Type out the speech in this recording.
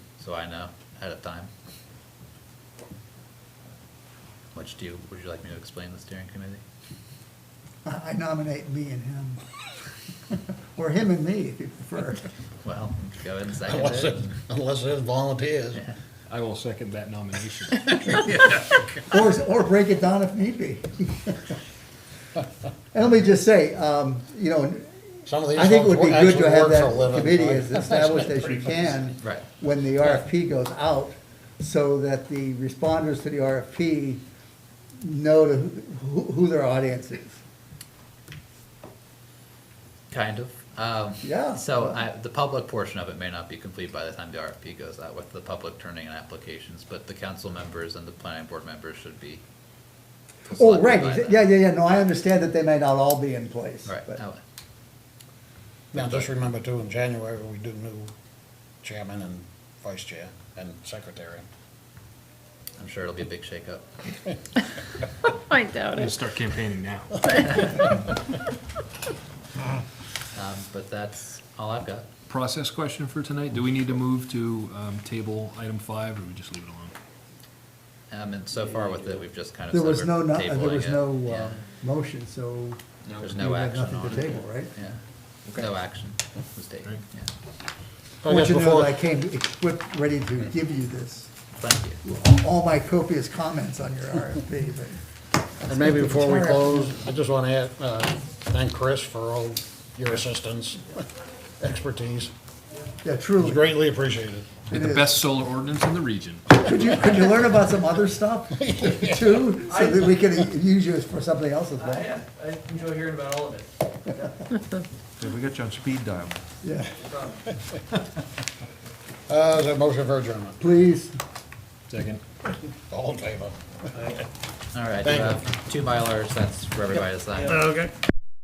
so I know ahead of time. Which do you, would you like me to explain the steering committee? I I nominate me and him. Or him and me, if you prefer. Well, go ahead and second Unless it, it. unless it volunteers. Yeah. I will second that nomination. Or, or break it down if need be. And let me just say, um, you know, Some of these I think it would be folks good to actually have work for a that living, committee right? as established as you can. Right. When the RFP goes out, so that the responders to the RFP know to who, who their audience is. Kind of. Um, Yeah. So I, the public portion of it may not be complete by the time the RFP goes out with the public turning in applications, but the council members and the planning board members should be. Oh, selected right, by then. yeah, yeah, yeah, no, I understand that they may not all be in place. Right, but- oh, Now, just remember too, in January, we do new chairman and vice chair and secretary. I'm sure it'll be a big shakeup. I doubt I'm gonna it. start campaigning now. Um, but that's all I've got. Process question for tonight, do we need to move to um, table item five, or we just leave it alone? Um, and so far with it, we've just kind of. There said was we're no, no- there tabling was it. no, Yeah. uh, motion, so. There's you no had action on Nothing to it. table, right? Yeah. No action was taken, Right. yeah. Oh, I want you to know that I came equipped, ready to give you this, Thank you. all my copious comments on your RFP, but. And maybe before we close, I just want to add, uh, thank Chris for all your assistance, expertise. Yeah, It was truly. greatly appreciated. Be It the is. best solar ordinance in the region. Could you, could you learn about some other stuff too, so that we can use you for something else as Uh, well? yeah, I enjoy hearing about all of it. Yeah, we got you on speed dial. Yeah, No problem. Uh, is there a motion for adjournment? please. Second. All in favor? All right, you Thank you. have two Mylars, that's for everybody to sign. Yeah. Okay.